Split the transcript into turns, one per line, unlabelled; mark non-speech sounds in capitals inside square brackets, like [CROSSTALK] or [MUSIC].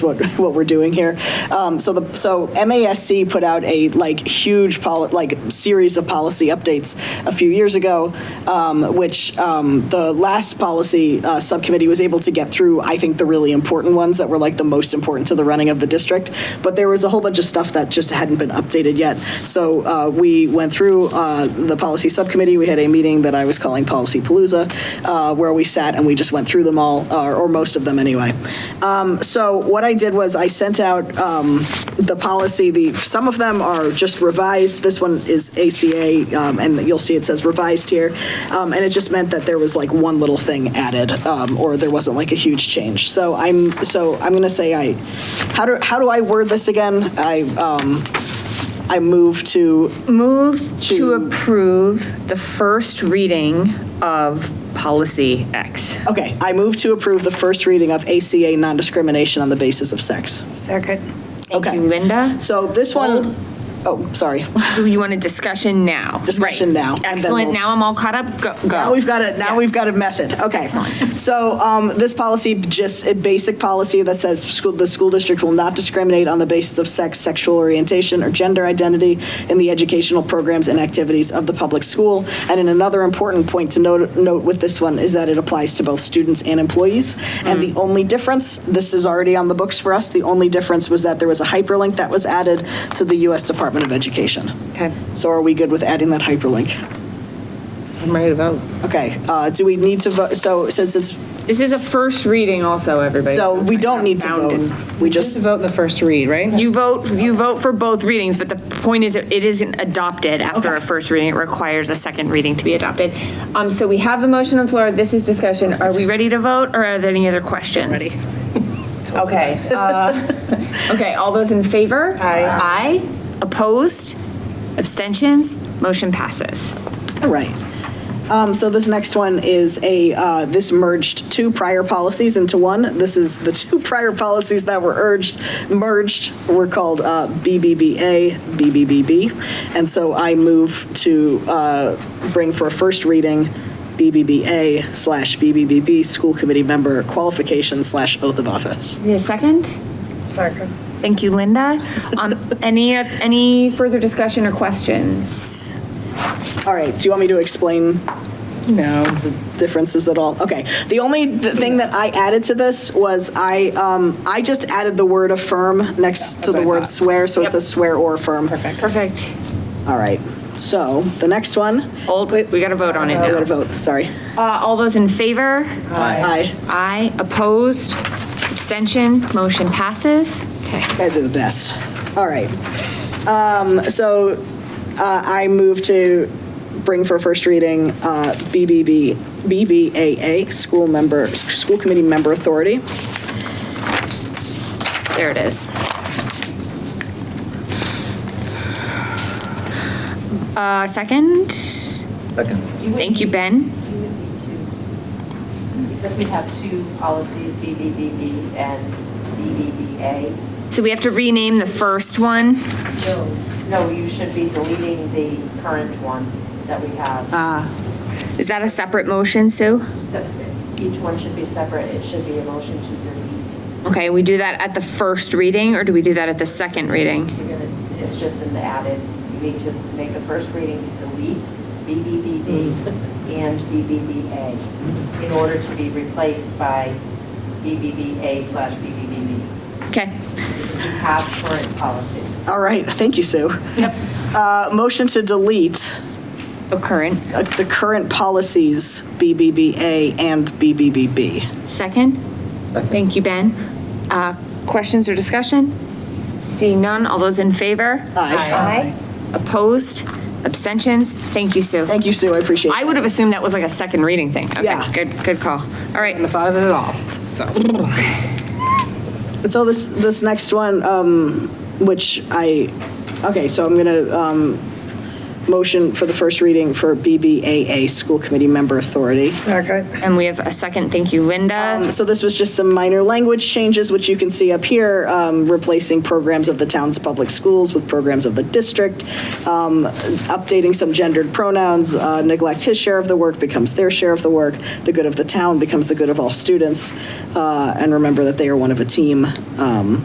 what, [LAUGHS] what we're doing here. Um, so the, so MASC put out a like huge poli, like series of policy updates a few years ago, um, which um, the last policy uh, subcommittee was able to get through, I think, the really important ones that were like the most important to the running of the district. But there was a whole bunch of stuff that just hadn't been updated yet. So uh, we went through uh, the policy subcommittee. We had a meeting that I was calling Policy Palooza, uh, where we sat and we just went through them all, uh, or, or most of them anyway. Um, so what I did was I sent out um, the policy. The some of them are just revised. This one is ACA, um, and you'll see it says revised here, um, and it just meant that there was like one little thing added, um, or there wasn't like a huge change. So I'm so I'm going to say I how do how do I word this again? I um, I move to
Move
To-
to approve the first reading of policy X.
Okay, I move to approve the first reading of ACA non-discrimination on the basis of sex.
Second.
Thank
Okay.
you, Linda.
So this one, oh, sorry.
Do you want a discussion now?
Discussion
Right.
now, and then
Excellent,
we'll-
now I'm all caught up, go.
Now
go.
we've got it, now we've
Yes.
got a method, okay. So um, this policy, just a basic policy that says school, the school district will not discriminate on the basis of sex, sexual orientation, or gender identity in the educational programs and activities of the public school. And in another important point to note, note with this one is that it applies to both students and employees. And
Mm.
the only difference, this is already on the books for us, the only difference was that there was a hyperlink that was added to the U.S. Department of Education.
Okay,
So are we good with adding that hyperlink?
I'm ready to vote.
Okay, uh, do we need to vote, so since it's,
This is a first reading also, everybody.
so we don't need to
Bound in-
vote. We just,
To vote in the first read, right?
You vote, you vote for both readings, but the point is, it isn't adopted after a first reading. It requires a second reading to be adopted. Um, so we have the motion on the floor. This is discussion. Are we ready to vote, or are there any other questions? Ready. [LAUGHS] Okay. uh, Okay, all those in favor? Aye. Aye. Opposed? Abstentions? Motion passes.
all right. Um, So this next one is a, uh, this merged two prior policies into one. This is the [LAUGHS] two prior policies that were urged, merged, were called uh, BBBA, BBBB. And so I move to uh, bring for a first reading BBBA slash BBBB, school committee member qualification slash oath of office.
Need a second?
Second.
Thank you, Linda. Um, Any, any further discussion or questions?
All right, do you want me to explain
No.
differences at all. Okay. The only th- thing that I added to this was I, um, I just added the word affirm next to
what
the
I
word
thought.
swear, so it says swear or affirm. Perfect.
Perfect.
All right. So the next one,
Old, we got to vote on it
I got to
now.
vote, sorry.
Uh, All those in favor?
Aye.
Aye. Opposed? Abstention? Motion passes? Okay.
You guys are the best. All right. Um, so uh, I move to bring for first reading uh, BBB, BBAA, school member, school committee member authority.
There it is. Uh, Second? Second. Thank you, Ben.
You would need to, because we have two policies, BBBB and BBBA.
So we have to rename the first one.
No. No, you should be deleting the current one that we have.
Is that a separate motion, Sue?
Se- Each one should be separate. It should be a motion to delete.
Okay, we do that at the first reading, or do we do that at the second reading?
You're gonna, it's just in the added, you need to make a first reading to delete BBBB and BBBA in order to be replaced by BBBA slash BBBB.
Okay.
We have current policies.
All right, thank you, Sue. Yep. Uh, motion to delete
The current.
uh, the current policies, BBBA and BBBB.
Second? Thank you, Ben. Uh, Questions or discussion? Seeing none, all those in favor?
Aye.
Opposed? Abstentions? Thank you, Sue.
Thank you, Sue, I appreciate
I
it.
would have assumed that was like a second reading thing. Okay,
Yeah.
Good, good call. All right.
And the thought of it at all, so.
So this, this next one, um, which I, okay, so I'm going to motion for the first reading for BBAA, School Committee Member Authority.
And we have a second, thank you, Linda.
Um, So this was just some minor language changes, which you can see up here, um, replacing programs of the town's public schools with programs of the district, um, updating some gendered pronouns, uh, neglect his share of the work becomes their share of the work, the good of the town becomes the good of all students, uh, and remember that they are one of a team. Um,